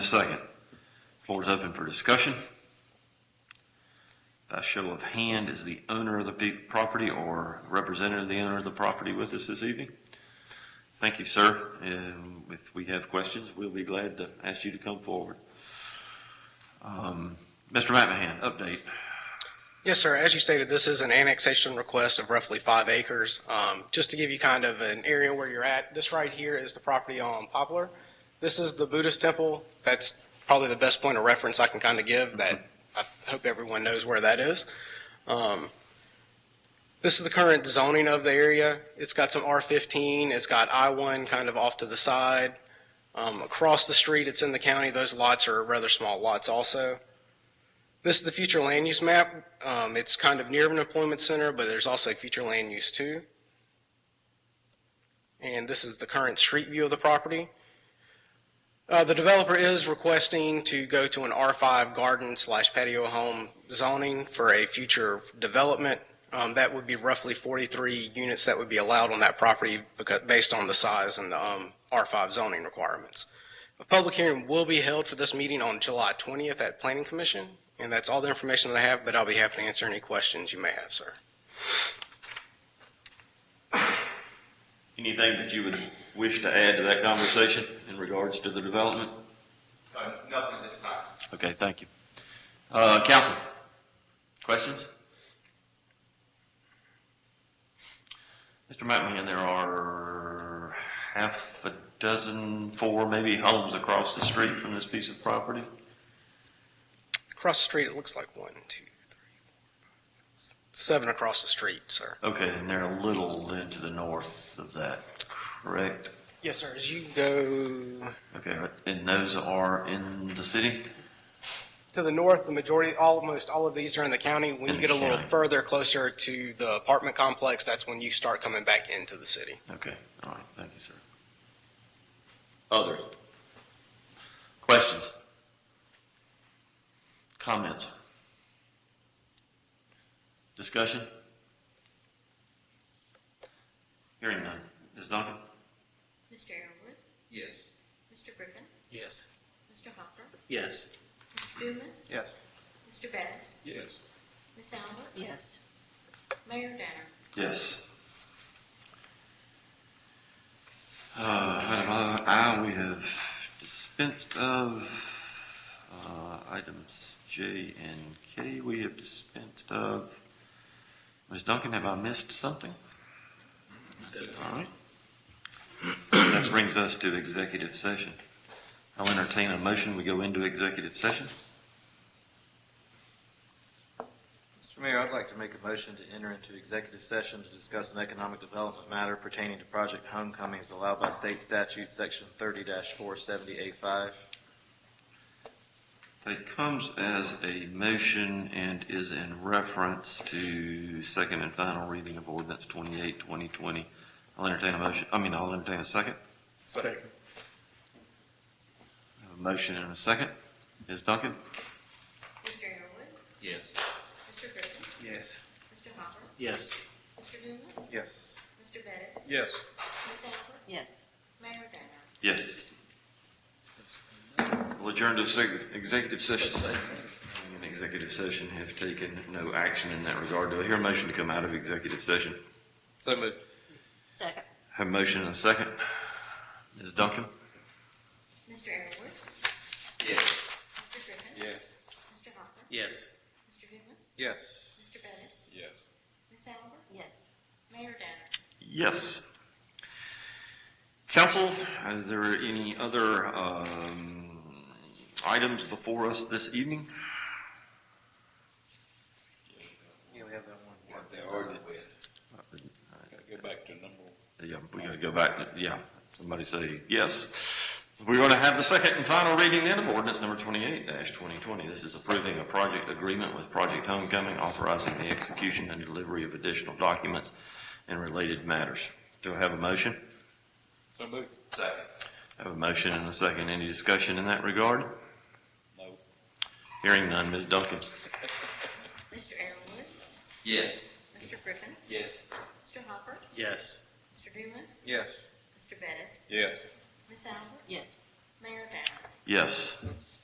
second? Floor is open for discussion. By show of hand, is the owner of the pe- property or representative of the owner of the property with us this evening? Thank you, sir. And if we have questions, we'll be glad to ask you to come forward. Um, Mr. McMahon, update. Yes, sir. As you stated, this is an annexation request of roughly five acres. Um, Just to give you kind of an area where you're at, this right here is the property on Poplar. This is the Buddhist temple. That's probably the best point of reference I can kind of give that I hope everyone knows where that is. Um, This is the current zoning of the area. It's got some R15, it's got I-1 kind of off to the side. Um, Across the street, it's in the county. Those lots are rather small lots also. This is the future land use map. Um, it's kind of near an employment center, but there's also future land use too. And this is the current street view of the property. Uh, the developer is requesting to go to an R5 garden slash patio home zoning for a future development. Um, that would be roughly 43 units that would be allowed on that property because, based on the size and the um, R5 zoning requirements. A public hearing will be held for this meeting on July 20th at Planning Commission. And that's all the information that I have, but I'll be happy to answer any questions you may have, sir. Anything that you would wish to add to that conversation in regards to the development? Uh, Nothing at this time. Okay, thank you. Uh, council, questions? Mr. McMahon, there are half a dozen, four maybe homes across the street from this piece of property? Across the street, it looks like one, two, three, four, five, six, seven across the street, sir. Okay, and they're a little then to the north of that, correct? Yes, sir. As you go Okay, and those are in the city? to the north, the majority, almost all of these are in the county. When In you the get a little county. further closer to the apartment complex, that's when you start coming back into the city. Okay, all right, thank you, sir. Other questions? Comments? Discussion? Hearing none. Ms. Duncan? Mr. Arrowood, Yes. Mr. Griffin, Yes. Mr. Hopper, Yes. Mr. Dumas. Yes. Mr. Bettis, Yes. Ms. Albert. Yes. Mayor Danner. Yes. Uh, item I, we have dispensed of, uh, items J and K, we have dispensed of. Ms. Duncan, have I missed something? All right. That brings us to executive session. I'll entertain a motion, we go into executive session. Mr. Mayor, I'd like to make a motion to enter into executive session to discuss an economic development matter pertaining to Project Homecomings allowed by state statute, section thirty four seventy A five. It comes as a motion and is in reference to second and final reading of ordinance 28, 2020. I'll entertain a motion, I mean, I'll entertain a second. Second. I have A motion and a second. Ms. Duncan? Mr. Arrowood, Yes. Mr. Griffin, Yes. Mr. Hopper, Yes. Mr. Dumas, Yes. Mr. Bettis, Yes. Ms. Albert, Yes. Mayor Danner. Yes. We'll adjourn to the sec- executive session. In executive session, have taken no action in that regard. Do I hear a motion to come out of executive session? So moved. Second. Have a motion and a second. Ms. Duncan? Mr. Arrowood, Yes. Mr. Griffin. Yes. Mr. Hopper, Yes. Mr. Dumas, Yes. Mr. Bettis, Yes. Ms. Albert, Yes. Mayor Danner. Yes. Council, is there any other um, items before us this evening? Yeah, we have that one. The ordinance. Gotta go back to number Uh, Yeah, we gotta go back, yeah, somebody say yes. We're gonna have the second and final reading then of ordinance number twenty-eight twenty twenty. This is approving a project agreement with Project Homecoming, authorizing the execution and delivery of additional documents and related matters. Do I have a motion? So moved. Second. I Have a motion and a second. Any discussion in that regard? No. Hearing none, Ms. Duncan. Mr. Arrowood, Yes. Mr. Griffin, Yes. Mr. Hopper, Yes. Mr. Dumas, Yes. Mr. Bettis, Yes. Ms. Albert, Yes. Mayor Danner. Yes.